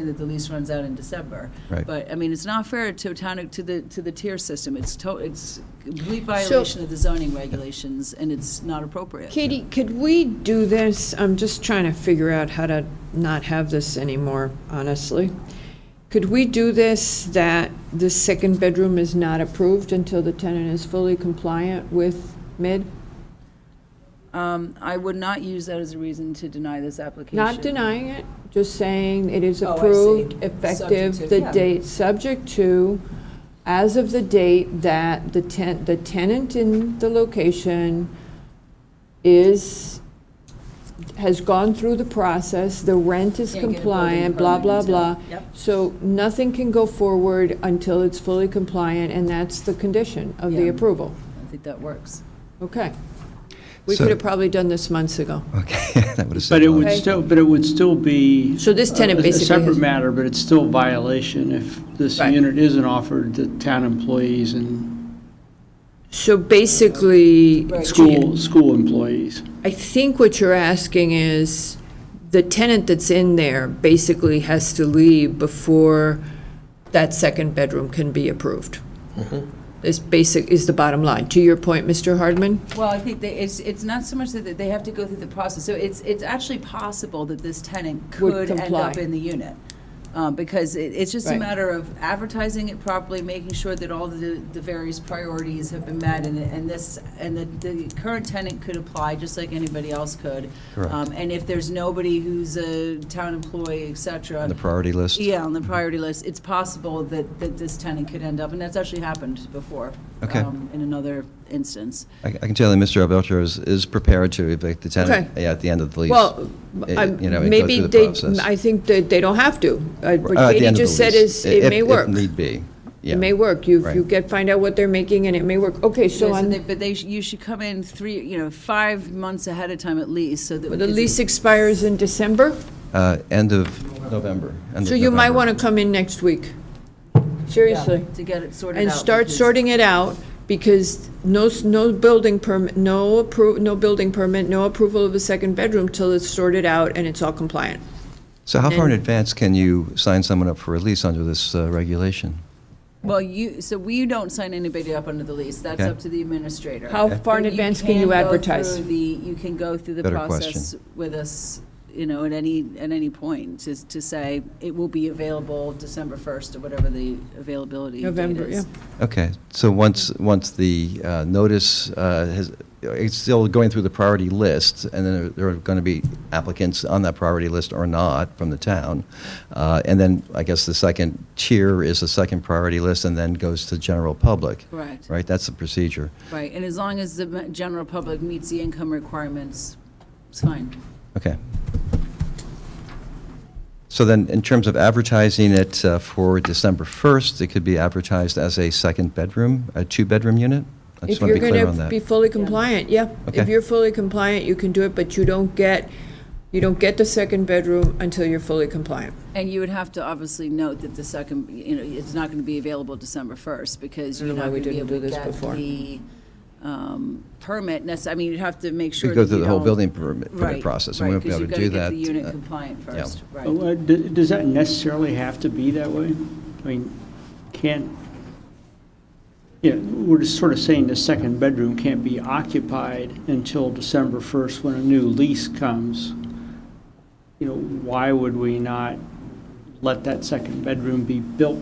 understand that the lease runs out in December. Right. But, I mean, it's not fair to town, to the, to the tier system. It's to, it's complete violation of the zoning regulations, and it's not appropriate. Katie, could we do this? I'm just trying to figure out how to not have this anymore, honestly. Could we do this, that the second bedroom is not approved until the tenant is fully compliant with mid? Um, I would not use that as a reason to deny this application. Not denying it, just saying it is Oh, I see. approved, Subject to- effective, the yeah. date, subject to, as of the date that the ten, the tenant in the location is, has gone through the process, the rent Can't is get a building compliant, blah, permit blah, until- blah. Yep. So nothing can go forward until it's fully compliant, and that's the condition of the Yeah. approval. I think that works. Okay. We So- could have probably done this months ago. Okay, that would have But said it no. would Okay. still, but it would still be. uh, So this tenant a- basically A separate has- matter, but it's still violation if this Right. unit isn't offered to town employees and So basically. Right. school, school employees. I think what you're asking is, the tenant that's in there basically has to leave before that second bedroom can be approved. Mm-hmm. This basic, is the bottom line. To your point, Mr. Hardman? Well, I think they, it's, it's not so much that they have to go through the process, so it's, it's actually possible that this tenant Would could end comply. up in the unit. Um, because it, it's just a Right. matter of advertising it properly, making sure that all the, the various priorities have been met, and, and this, and that the current tenant could apply, just like anybody else could. Correct. Um, And if there's nobody who's a town employee, et cetera. The priority list? Yeah, on the priority list, it's possible that, that this tenant could end up, and that's actually happened before. Okay. um, In another instance. I I can tell that Mr. Abelcher is, is prepared to evict the tenant Okay. at the end of the lease. Well, Eh, I'm- you know, it goes maybe through the they, process. I think that they don't have to. Uh, Uh, at What the end Katie of the just said lease, is, it if- may if work. need be, yeah. It may work. You, you Right. get, find out what they're making, and it may work. Okay, so Yes, and they- on, But they, sh- you should come in three, you know, five months ahead of time at least, so that. the because lease expires in December? Uh, End of November. end of So you might November. want to come in next week. Seriously. To get it sorted out. And start because- sorting it out, because no, s- no building permit, no appro, no building permit, no approval of a second bedroom till it's sorted out and it's all compliant. So how far in advance can you sign someone up for a lease under this uh, regulation? Well, you, so we don't sign anybody up under the lease, that's Okay. up to the administrator. How far in But advance can you go advertise? through the- You can go through the Better process with us, you know, at any, at any point, to, to say, it will be available December 1st, or whatever the availability date November, is. yeah. Okay, so once, once the uh, notice uh, has, it's still going through the priority list, and then there are going to be applicants on that priority list or not from the town. Uh, And then, I guess the second tier is the second priority list, and then goes to general public, Correct, right? That's the procedure. right, and as long as the ma- general public meets the income requirements, it's fine. Okay. So then, in terms of advertising it uh, for December 1st, it could be advertised as a second bedroom, a two-bedroom unit? I If just want you're to be clear going on to that. be fully compliant, yeah. If Okay. you're fully compliant, you can do it, but you don't get, you don't get the second bedroom until you're fully compliant. And you would have to obviously note that the second, you know, it's not going to be available December 1st, because I you're don't know not why we going to be didn't able to do this get before. the um, permit necess, I mean, you'd have to make sure that We'd go you through the whole don't- building permit, permit Right, process, right, and we won't be 'cause able to do you've that. gotta get the unit uh, compliant yeah. first, right. Uh, d- Does that necessarily have to be that way? I mean, can't, yeah, we're just sort of saying the second bedroom can't be occupied until December 1st when a new lease comes. You know, why would we not let that second bedroom be built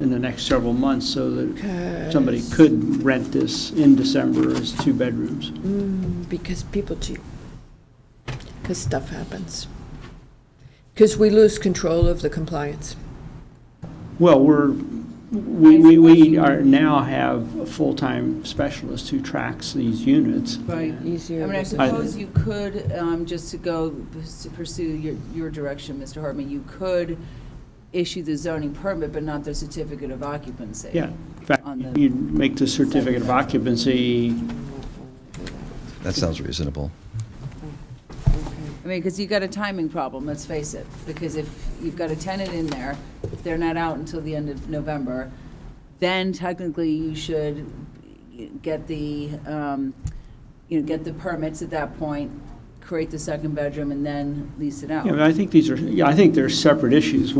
in the next several months so that somebody could rent this in December as two bedrooms? Because people cheat. Because stuff happens. Because we lose control of the compliance. Well, we're, we, we, we are, now have a full-time specialist who tracks these units. Right. I Easier. mean, I to- suppose you could, um, just to go, to pursue your, your direction, Mr. Hartman, you could issue the zoning permit, but not the certificate of occupancy. Yeah, in fact, On the- you'd make the certificate of occupancy, That sounds reasonable. I mean, because you've got a timing problem, let's face it, because if you've got a tenant in there, if they're not out until the end of November, then technically you should get the, um, you know, get the permits at that point, create the second bedroom, and then lease it out. yeah, but I think these are, yeah, I think they're separate issues.